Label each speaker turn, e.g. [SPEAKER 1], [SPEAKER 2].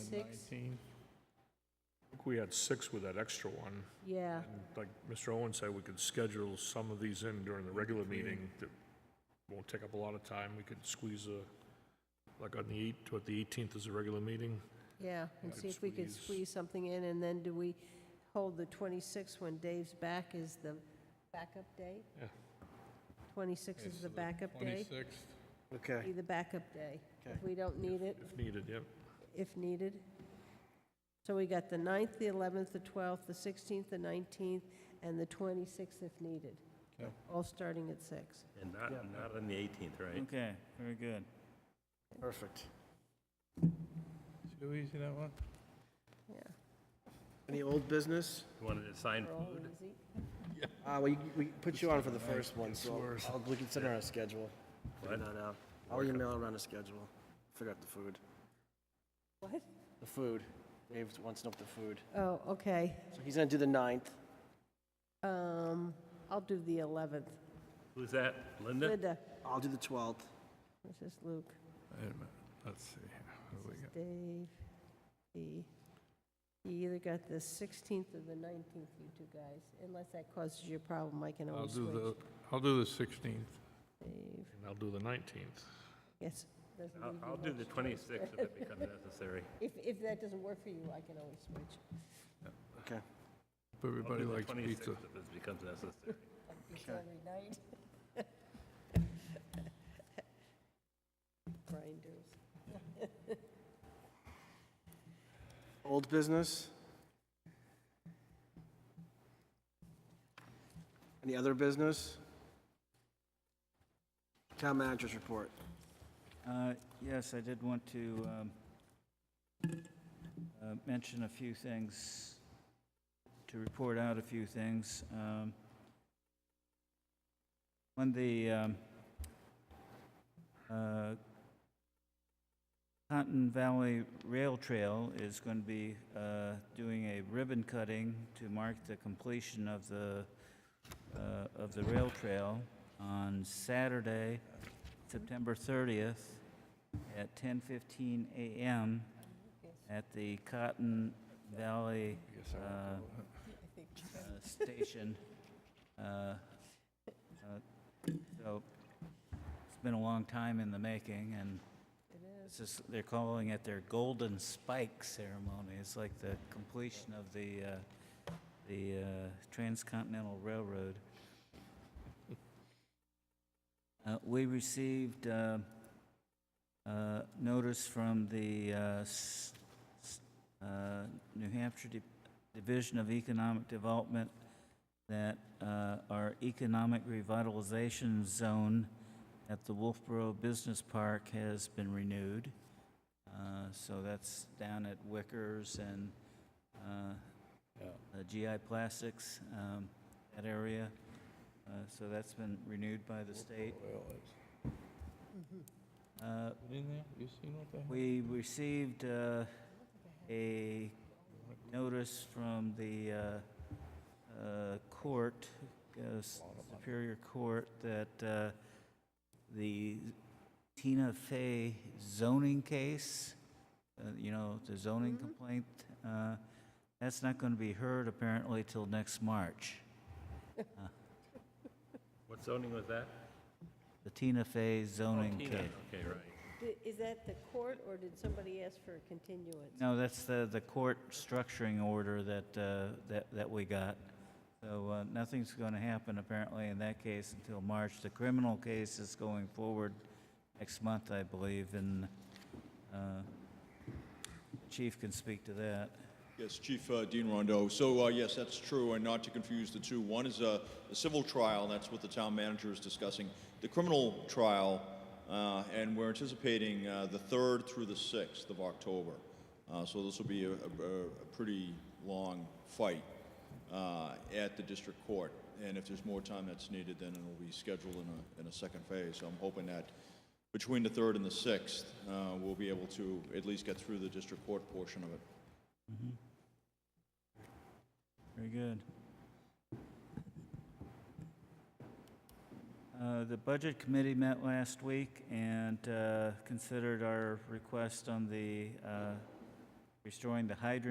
[SPEAKER 1] six,
[SPEAKER 2] 19. I think we had six with that extra one.
[SPEAKER 1] yeah.
[SPEAKER 2] And Like Mr. Owen said, we could schedule some of these in during the regular meeting that won't take up a lot of time. We could squeeze a, like on the eight, what, the 18th is a regular meeting?
[SPEAKER 1] Yeah, and
[SPEAKER 2] could
[SPEAKER 1] see if we could
[SPEAKER 2] squeeze-
[SPEAKER 1] squeeze something in, and then do we hold the 26th when Dave's back is the backup day?
[SPEAKER 2] Yeah.
[SPEAKER 1] 26 is the backup day?
[SPEAKER 3] Twenty-sixth,
[SPEAKER 1] Be
[SPEAKER 4] Okay.
[SPEAKER 1] the backup day, if
[SPEAKER 4] Okay.
[SPEAKER 1] we don't need it,
[SPEAKER 2] If needed, yep.
[SPEAKER 1] if needed. So we got the 9th, the 11th, the 12th, the 16th, the 19th, and the 26th if needed,
[SPEAKER 3] Okay.
[SPEAKER 1] all starting at 6.
[SPEAKER 5] And not,
[SPEAKER 4] Yeah.
[SPEAKER 5] not on the 18th, right?
[SPEAKER 6] Okay, very good.
[SPEAKER 4] Perfect.
[SPEAKER 3] too easy, that one?
[SPEAKER 1] Yeah.
[SPEAKER 4] Any old business?
[SPEAKER 5] You Wanted to sign
[SPEAKER 1] We're all
[SPEAKER 5] food?
[SPEAKER 1] easy.
[SPEAKER 4] Uh, we, we put you on for the first one, so I'll- we can send out a schedule. Figure
[SPEAKER 5] What?
[SPEAKER 4] that out. I'll email around a schedule. Figure out the food.
[SPEAKER 1] What?
[SPEAKER 4] The food. Dave wants to know the food.
[SPEAKER 1] Oh, okay.
[SPEAKER 4] So he's gonna do the ninth.
[SPEAKER 1] Um, I'll do the 11th.
[SPEAKER 5] Who's that? Linda?
[SPEAKER 1] Linda,
[SPEAKER 4] I'll do the twelfth.
[SPEAKER 1] this is Luke.
[SPEAKER 3] Wait a minute, let's see, what do we got?
[SPEAKER 1] Dave, he, he either got the 16th or the 19th, you two guys, unless that causes you a problem, I can
[SPEAKER 3] I'll
[SPEAKER 1] always
[SPEAKER 3] do
[SPEAKER 1] switch.
[SPEAKER 3] the, I'll do the sixteenth.
[SPEAKER 1] Dave,
[SPEAKER 2] And I'll do the 19th.
[SPEAKER 1] yes. doesn't
[SPEAKER 5] I'll,
[SPEAKER 1] leave you
[SPEAKER 5] I'll do
[SPEAKER 1] much
[SPEAKER 5] the
[SPEAKER 1] choice.
[SPEAKER 5] 26th if it becomes necessary.
[SPEAKER 1] If, if that doesn't work for you, I can always switch.
[SPEAKER 5] I'll
[SPEAKER 3] Everybody
[SPEAKER 5] do the
[SPEAKER 3] likes
[SPEAKER 5] 26th
[SPEAKER 3] pizza.
[SPEAKER 5] If it becomes necessary.
[SPEAKER 1] It's
[SPEAKER 4] Okay.
[SPEAKER 1] every night. Grinders.
[SPEAKER 4] Old business? Any other business? Town managers report.
[SPEAKER 6] Uh, Yes, I did want to um, uh, mention a few things, to report out a few things. Um, On the um, uh, Cotton Valley Rail Trail is going to be uh, doing a ribbon cutting to mark the completion of the, uh, of the rail trail on Saturday, September 30th at 10:15 a.m. at the Cotton Valley
[SPEAKER 3] I guess I won't
[SPEAKER 6] Uh,
[SPEAKER 3] go.
[SPEAKER 6] uh, Station. Uh, uh, So it's been a long time in the making, and
[SPEAKER 1] It is.
[SPEAKER 6] this is, they're calling it their Golden Spike Ceremony. It's like the completion of the, uh, the uh, Transcontinental Railroad. Uh, We received uh, uh, notice from the uh, s- s- uh, New Hampshire Di- Division of Economic Development that uh, our Economic Revitalization Zone at the Wolfboro Business Park has been renewed. Uh, So that's down at Wickers and uh, uh, GI Plastics, um, that area. Uh, So that's been renewed by the state.
[SPEAKER 3] Well, it's-
[SPEAKER 6] Uh,
[SPEAKER 3] Put in there, you seen what the?
[SPEAKER 6] We received uh, a notice from the uh, uh, court, uh, s- Superior Court, that uh, the Tina Fey zoning case, uh, you know, the zoning
[SPEAKER 1] Mhm.
[SPEAKER 6] complaint, uh, that's not going to be heard apparently till next March.
[SPEAKER 5] What zoning was that?
[SPEAKER 6] The Tina Fey
[SPEAKER 5] Oh,
[SPEAKER 6] zoning
[SPEAKER 5] Tina.
[SPEAKER 6] case.
[SPEAKER 5] Okay, right.
[SPEAKER 1] Di- Is that the court, or did somebody ask for a continuance?
[SPEAKER 6] No, that's the, the court structuring order that, uh, that, that we got. So uh, nothing's going to happen apparently in that case until March. The criminal case is going forward next month, I believe, and uh, Chief can speak to that.
[SPEAKER 7] Yes, Chief uh, Dean Rondo. So, uh, yes, that's true, and not to confuse the two. One is a, a civil trial, and that's what the town manager is discussing. The criminal trial, uh, and we're anticipating uh, the 3rd through the 6th of October. Uh, so, this will be a, a, a pretty long fight uh, at the district court. And if there's more time that's needed, then it'll be scheduled in a, in a second phase. So, I'm hoping that between the 3rd and the 6th, uh, we'll be able to at least get through the district court portion of it.
[SPEAKER 6] Very good. Uh, The Budget Committee met last week and uh, considered our request on the uh, restoring the hydrant